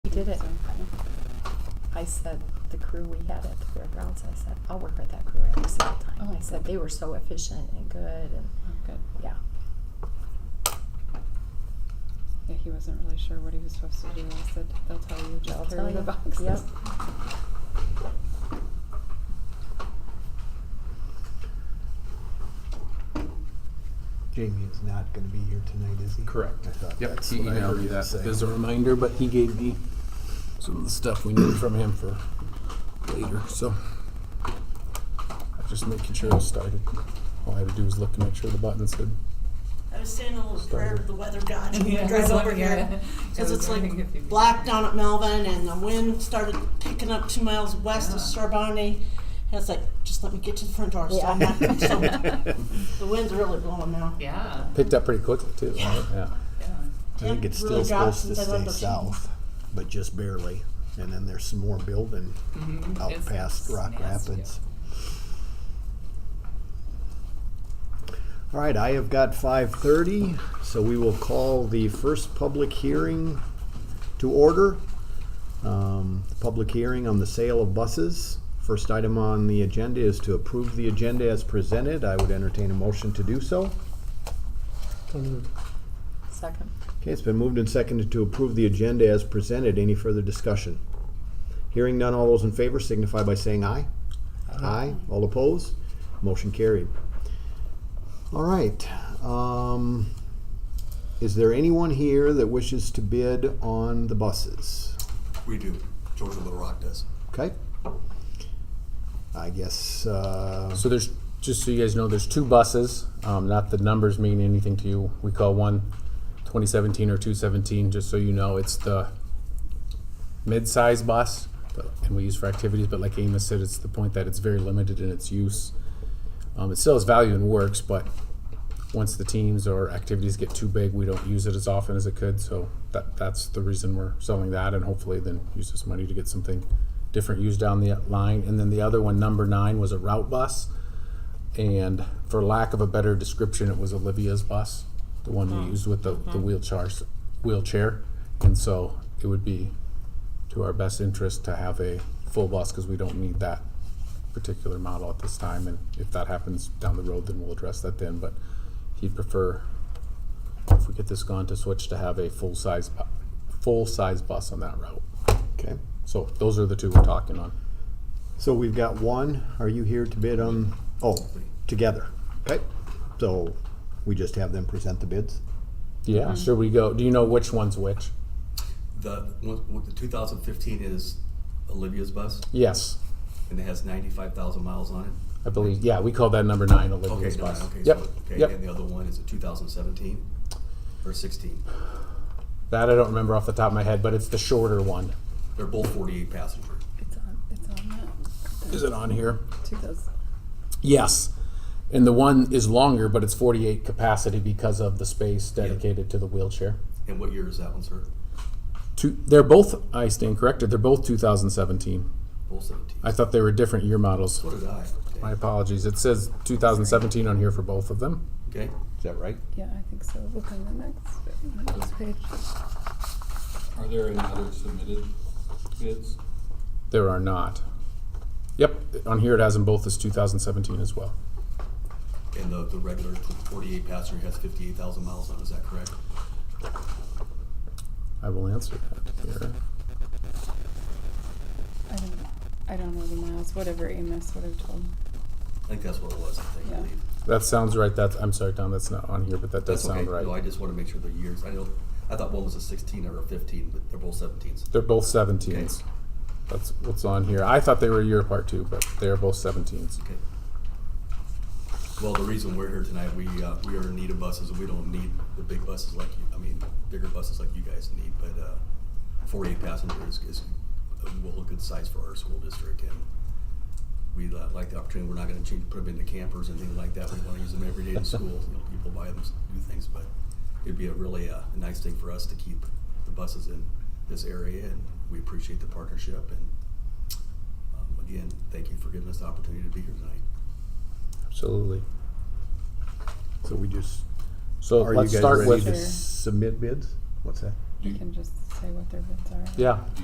did it. I said, the crew we had at the fairgrounds, I said, I'll work with that crew every single time. Oh, I said, good. they were so efficient and good and, Oh, good. yeah. Yeah, he wasn't really sure what he was supposed to do. I said, they'll tell you, They'll just tell carry the you. boxes. Yep. Jamie is not going to be here tonight, is he? Correct. I thought Yep, that's he what I heard emailed me you that say. as a reminder, but he gave me some of the stuff we need from him for later, so. I was Just making sure I started. All I had to do was look to make sure the button said, I was saying a little prayer to the weather god when Yeah, I drove I over was wondering, here. yeah. I Because was it's wondering if you'd like be- black down at Melvin and the wind started picking up two miles west of Yeah. Sorbonne. And it's like, just let me get to the front door so I'm not soaked. The wind's really blowing now. Yeah. picked up pretty quickly too. right? Yeah. Yeah. I think it's still Really dropped supposed to since I stay left the- south, but just barely. And then there's some more building Mm-hmm. out past Rock Rapids. All right, I have got five thirty, so we will call the first public hearing to order. Um, Public hearing on the sale of buses. First item on the agenda is to approve the agenda as presented. I would entertain a motion to do so. Second. Okay, it's been moved and seconded to approve the agenda as presented. Any further discussion? Hearing none, all those in favor signify by saying aye. Aye. All opposed? Motion carried. All right. um, Is there anyone here that wishes to bid on the buses? We do. Georgia Little Rock does. Okay? I guess, uh, So there's, just so you guys know, there's two buses, um, not the numbers mean anything to you. We call one 2017 or 217, just so you know, it's the mid-size bus, but- and we use for activities, but like Amos said, it's the point that it's very limited in its use. Um, it still has value and works, but once the teams or activities get too big, we don't use it as often as it could, so that, that's the reason we're selling that, and hopefully then use this money to get something different used down the line. And then the other one, number nine, was a route bus, and for lack of a better description, it was Olivia's bus, the one we used with the, the wheelchairs, wheelchair, and so it would be to our best interest to have a full bus, because we don't need that particular model at this time, and if that happens down the road, then we'll address that then, but he'd prefer, if we get this gone, to switch to have a full-size, bu- full-size bus on that route. okay. So those are the two we're talking on. So we've got one. Are you here to bid on, oh, together? Okay. So we just have them present the bids? Yeah, should we go, do you know which one's which? The what, what the 2015 is Olivia's bus, Yes, and it has 95,000 miles on it. I believe, yeah, we call that number nine Olivia's Okay, no, bus. okay, Yep, so, okay, and yep, the other one is a 2017 or 16. that I don't remember off the top of my head, but it's the shorter one. They're both 48 passenger. It's on, it's on Is it on here? that. Two those. Yes, and the one is longer, but it's forty-eight capacity because of the space dedicated to the wheelchair. And what year is that one, sir? Two, they're both, I stand corrected, they're both two thousand seventeen. Both 17. I thought they were different year models. so did I. My Okay. apologies. It says 2017 on here for both of them. okay. Is that right? Yeah, I think so. Look on the next, next page. Are there any other submitted bids? There are not. Yep, on here it has them both as 2017 as well. And the, the regular 48 passenger has 58,000 miles on it, is that correct? I will answer that here. I don't, I don't know the miles, whatever Amos would have told. I think that's what it was, I think. I Yeah. believe. That sounds right. That's, I'm sorry, Tom, that's not on here, but that does That's okay. sound No, I right. just want to make sure the years. I know, I thought one was a 16 or a 15, but they're both 17s. They're both 17s. Okay. That's what's on here. I thought they were a year apart too, but they're both 17s. Okay. Well, the reason we're here tonight, we, uh, we are in need of buses, and we don't need the big buses like you, I mean, bigger buses like you guys need, but, uh, forty-eight passengers is, well, a good size for our school district, and we li- like the opportunity, we're not gonna change, put them into campers and things like that, we wanna use them every day in school, you know, people buy them, s- do things, but it'd be a really, uh, a nice thing for us to keep the buses in this area, and we appreciate the partnership, and, um, again, thank you for giving us the opportunity to be here tonight. Absolutely. So we just So Are you let's guys start ready with, to Sure. submit bids? What's that? You can just say what their bids are. yeah,